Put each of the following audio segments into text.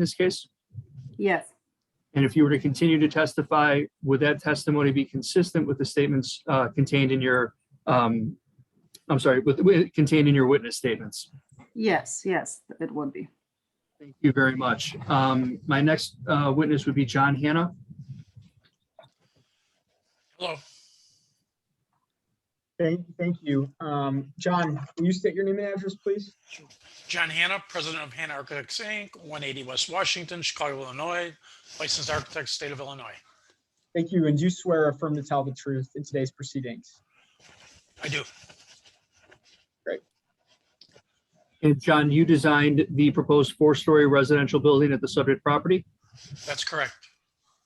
this case? Yes, And if you were to continue to testify, would that testimony be consistent with the statements uh, contained in your, um, I'm sorry, with, with- contained in your witness statements? yes, yes, it would be. Thank you very much. Um, My next uh, witness would be John Hanna. Hello, Thank, thank you. Um, John, will you state your name and address, please? John Hanna, President of Hanna Architects Inc., 180 West Washington, Chicago, Illinois, licensed architect, state of Illinois. Thank you. And do you swear or affirm to tell the truth in today's proceedings? I do. And John, you designed the proposed four-story residential building at the subject property. That's correct.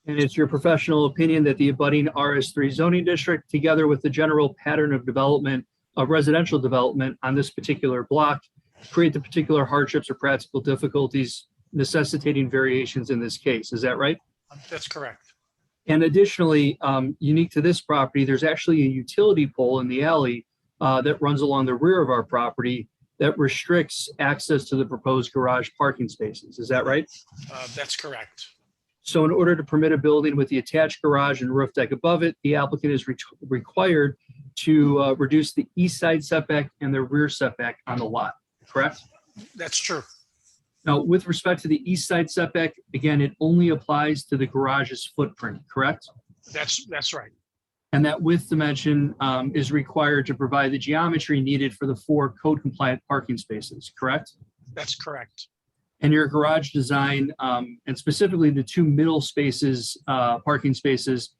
And it's your professional opinion that the abutting RS3 zoning district, together with the general pattern of development of residential development on this particular block, create the particular hardships or practical difficulties necessitating variations in this case. Is that right? That's correct. And additionally, um, unique to this property, there's actually a utility pole in the alley uh, that runs along the rear of our property that restricts access to the proposed garage parking spaces. Is that right? Uh, That's correct. So in order to permit a building with the attached garage and roof deck above it, the applicant is re- required to uh, reduce the east side setback and the rear setback on the lot, correct? That's true. Now, with respect to the east side setback, again, it only applies to the garage's footprint, correct? That's, that's right. And that width dimension um, is required to provide the geometry needed for the four code compliant parking spaces, correct? That's correct. And your garage design, um, and specifically the two middle spaces, uh, parking spaces,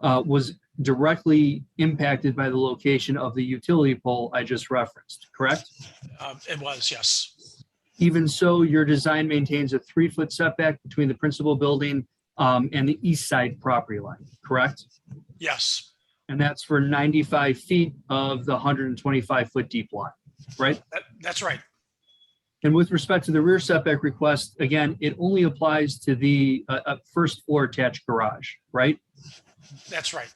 uh, was directly impacted by the location of the utility pole I just referenced, correct? Uh, It was, yes. Even so, your design maintains a three-foot setback between the principal building, um, and the east side property line, correct? Yes, And that's for 95 feet of the 125-foot deep lot, right? that, that's right. And with respect to the rear setback request, again, it only applies to the uh, uh, first floor attached garage, right? That's right.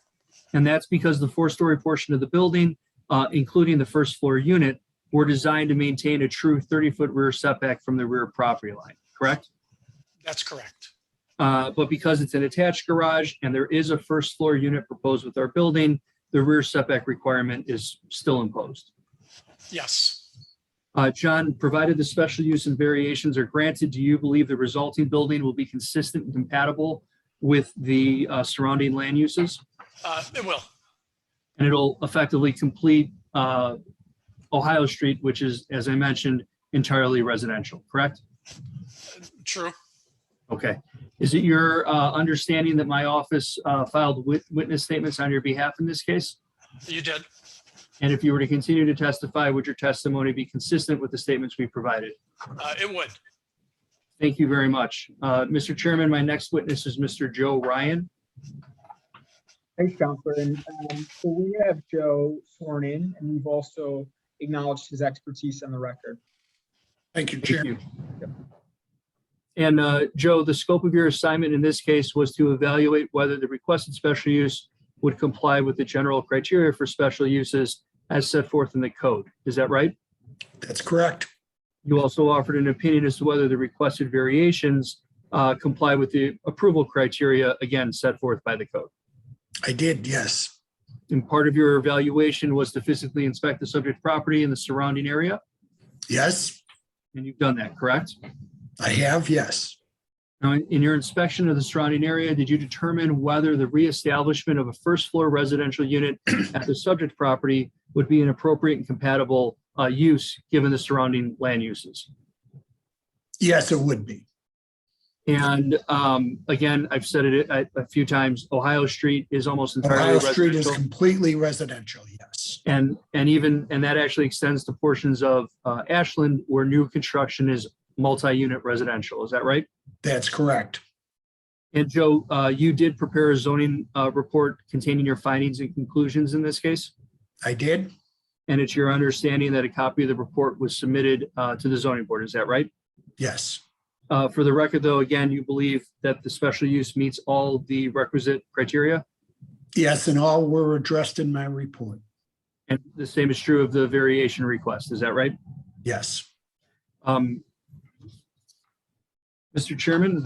And that's because the four-story portion of the building, uh, including the first floor unit, were designed to maintain a true 30-foot rear setback from the rear property line, correct? That's correct. Uh, But because it's an attached garage and there is a first floor unit proposed with our building, the rear setback requirement is still imposed. Yes, Uh, John, provided the special use and variations are granted, do you believe the resulting building will be consistent and compatible with the uh, surrounding land uses? Uh, it will. And it'll effectively complete uh, Ohio Street, which is, as I mentioned, entirely residential, correct? True. Okay. Is it your uh, understanding that my office uh, filed wit- witness statements on your behalf in this case? You did. And if you were to continue to testify, would your testimony be consistent with the statements we provided? Uh, It would. Thank you very much. Uh, Mr. Chairman, my next witness is Mr. Joe Ryan. Thanks, Counselor. And um, so we have Joe sworn in, and we've also acknowledged his expertise on the record. Thank you, Thank Chair. you. And uh, Joe, the scope of your assignment in this case was to evaluate whether the requested special use would comply with the general criteria for special uses as set forth in the code. Is that right? That's correct. You also offered an opinion as to whether the requested variations uh, comply with the approval criteria, again, set forth by the code. I did, yes. And part of your evaluation was to physically inspect the subject property and the surrounding area, Yes, and you've done that, correct? I have, yes. Now, in in your inspection of the surrounding area, did you determine whether the reestablishment of a first floor residential unit at the subject property would be an appropriate and compatible uh, use given the surrounding land uses? Yes, it would be. And um, again, I've said it a a few times, Ohio Street is almost entirely Ohio Street is residential. completely residential, yes. And, and even, and that actually extends to portions of uh, Ashland where new construction is multi-unit residential. Is that right? That's correct. And Joe, uh, you did prepare a zoning uh, report containing your findings and conclusions in this case? I did. And it's your understanding that a copy of the report was submitted uh, to the zoning board, is that right? Yes, Uh, For the record, though, again, you believe that the special use meets all the requisite criteria? yes, and all were addressed in my report. And the same is true of the variation request, is that right? Yes, Um, Mr. Um, Chairman,